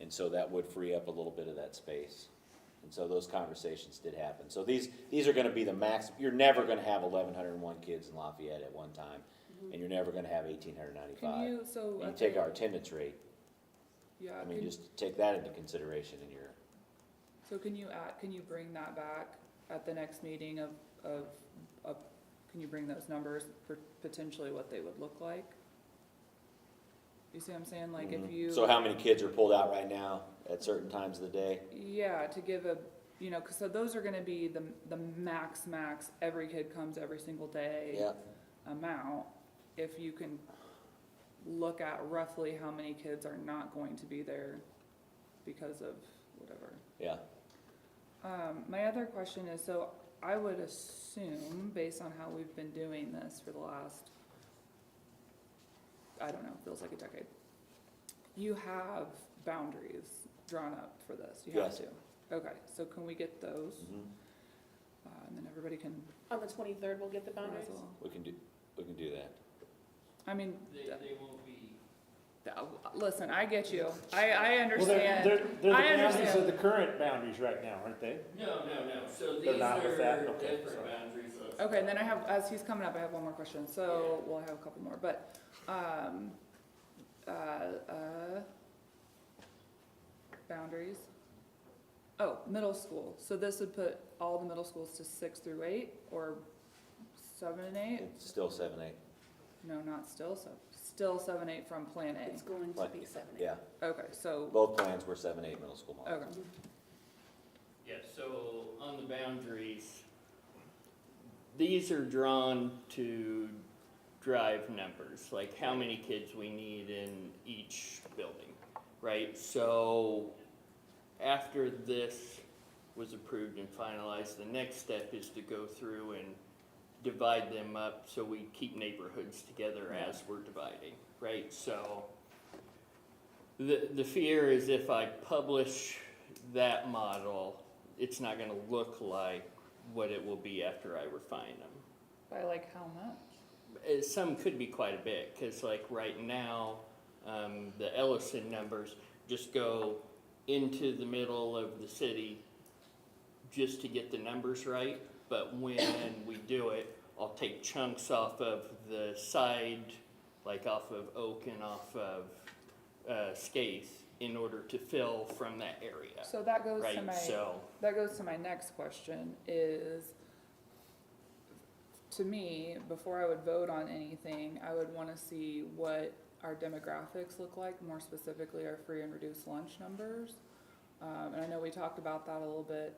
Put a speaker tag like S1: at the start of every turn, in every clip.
S1: And so that would free up a little bit of that space. And so those conversations did happen. So these, these are gonna be the max, you're never gonna have eleven hundred and one kids in Lafayette at one time, and you're never gonna have eighteen hundred
S2: Mm-hmm. Can
S1: ninety-five.
S2: you, so.
S1: You
S2: okay,
S1: take our attendance rate,
S2: Yeah,
S1: I mean,
S2: can,
S1: just take that into consideration in your,
S2: so can you add, can you bring that back at the next meeting of, of, of, can you bring those numbers for potentially what they would look like? You see what I'm saying, like if
S1: Mhm.
S2: you.
S1: So how many kids are pulled out right now at certain times of the day?
S2: Yeah, to give a, you know, 'cause so those are gonna be the, the max, max, every kid comes every single day.
S1: Yeah,
S2: amount, if you can look at roughly how many kids are not going to be there because of whatever.
S1: yeah.
S2: Um, my other question is, so I would assume, based on how we've been doing this for the last, I don't know, feels like a decade, you have boundaries drawn up for this, you have
S1: Yes.
S2: to. Okay, so can we get those,
S1: Mhm.
S2: uh, and then everybody can
S3: On the twenty-third, we'll get the boundaries.
S2: wrestle?
S1: We can do, we can do that.
S2: I mean.
S4: They,
S2: the-
S4: they won't be,
S2: Uh, Listen, I get you. I, I
S5: Well, they're, they're,
S2: understand. I
S5: they're the boundaries
S2: understand.
S5: of the current boundaries right now, aren't they?
S4: no, no, no, so
S5: They're
S4: these
S5: not with that?
S4: are
S5: Okay,
S4: different
S5: sorry.
S4: boundaries of.
S2: Okay, and then I have, as he's coming up, I have one more question, so we'll have a couple more, but, um, uh, uh, boundaries. Oh, middle school. So this would put all the middle schools to six through eight or seven and eight?
S1: It's still seven, eight,
S2: No, not still, so, still seven, eight from Plan
S3: It's
S2: A.
S3: going to
S1: But-
S3: be seven, eight.
S1: yeah.
S2: Okay, so,
S1: Both plans were seven, eight middle school model.
S2: okay.
S4: Yeah, so on the boundaries, these are drawn to drive numbers, like how many kids we need in each building, right? So after this was approved and finalized, the next step is to go through and divide them up so we keep neighborhoods together as we're dividing, right? So the, the fear is if I publish that model, it's not gonna look like what it will be after I refine them.
S2: By like how much?
S4: Uh, Some could be quite a bit, cause like right now, um, the Ellison numbers just go into the middle of the city just to get the numbers right, but when we do it, I'll take chunks off of the side, like off of Oak and off of, uh, Skates in order to fill from that area,
S2: So that goes to
S4: right?
S2: my.
S4: So,
S2: That goes to my next question is, to me, before I would vote on anything, I would wanna see what our demographics look like, more specifically our free and reduced lunch numbers. Um, and I know we talked about that a little bit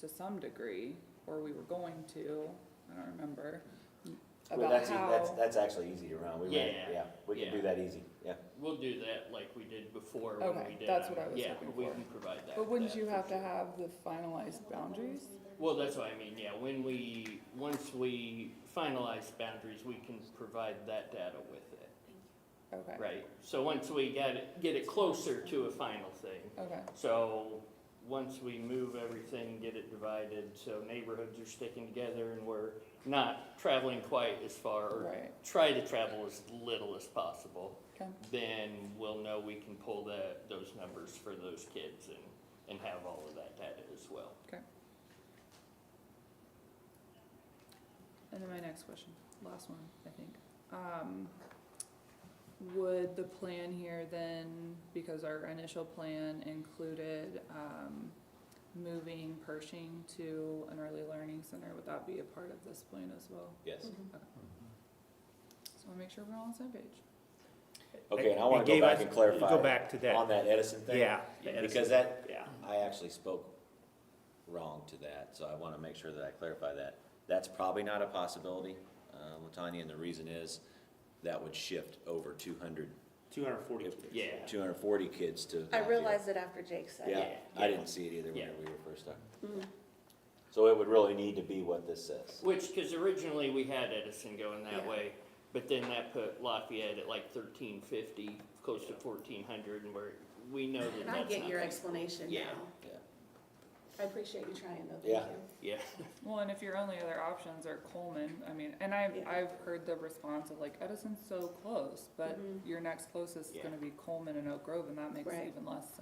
S2: to some degree, or we were going to, I don't remember.
S1: Well,
S2: About
S1: that's, e- that's,
S2: how,
S1: that's actually easy to run. We ran,
S4: Yeah,
S1: yeah, we can do
S4: yeah.
S1: that easy, yeah.
S4: We'll do that like we did before when
S2: Okay,
S4: we did.
S2: that's
S4: them.
S2: what I was
S4: Yeah,
S2: looking
S4: we
S2: for.
S4: can provide that.
S2: but wouldn't
S4: that
S2: you
S4: for
S2: have to
S4: sure.
S2: have the finalized boundaries?
S4: Well, that's what I mean, yeah, when we, once we finalize boundaries, we can provide that data with it,
S2: Okay,
S4: right? So once we get it, get it closer to a final thing,
S2: okay,
S4: so once we move everything, get it divided, so neighborhoods are sticking together and we're not traveling quite as far, or
S2: right,
S4: try to travel as little as possible.
S2: okay,
S4: then we'll know we can pull the, those numbers for those kids and, and have all of that data as well.
S2: and then my next question, last one, I think. Um, would the plan here then, because our initial plan included, um, moving Pershing to an early learning center, would that be a part of this plan as well?
S1: Yes.
S2: So we'll make sure we're all on the same page.
S1: Okay, and I wanna go back and
S5: Go
S1: clarify
S5: back to
S1: on
S5: that,
S1: that Edison thing.
S5: yeah.
S1: Because that,
S5: Yeah.
S1: I actually spoke wrong to that, so I wanna make sure that I clarify that. That's probably not a possibility, uh, Latanya, and the reason is that would shift over two hundred,
S5: Two hundred and forty.
S4: Yeah.
S1: two hundred and forty kids to.
S3: I
S1: Lafayette.
S3: realized it after Jake said
S1: Yeah,
S3: it.
S4: Yeah,
S1: I
S4: yeah.
S1: didn't see it either when
S4: Yeah.
S1: we were first talking.
S3: Mhm.
S1: So it would really need to be what this says.
S4: Which, cause originally we had Edison going that
S3: Yeah.
S4: way, but then that put Lafayette at like thirteen fifty, close to fourteen hundred, and we're, we know that
S3: And I
S4: that's
S3: get
S4: not
S3: your
S4: gonna-
S3: explanation now.
S4: Yeah.
S1: Yeah.
S3: I appreciate you trying though,
S1: Yeah.
S3: thank you.
S4: Yeah,
S2: Well, and if your only other options are Coleman, I mean, and I've,
S3: Yeah.
S2: I've heard the response of like Edison's so close, but
S3: Mhm.
S2: your next closest is
S4: Yeah.
S2: gonna be Coleman and Oak Grove, and that makes
S3: Right.
S2: even less sense.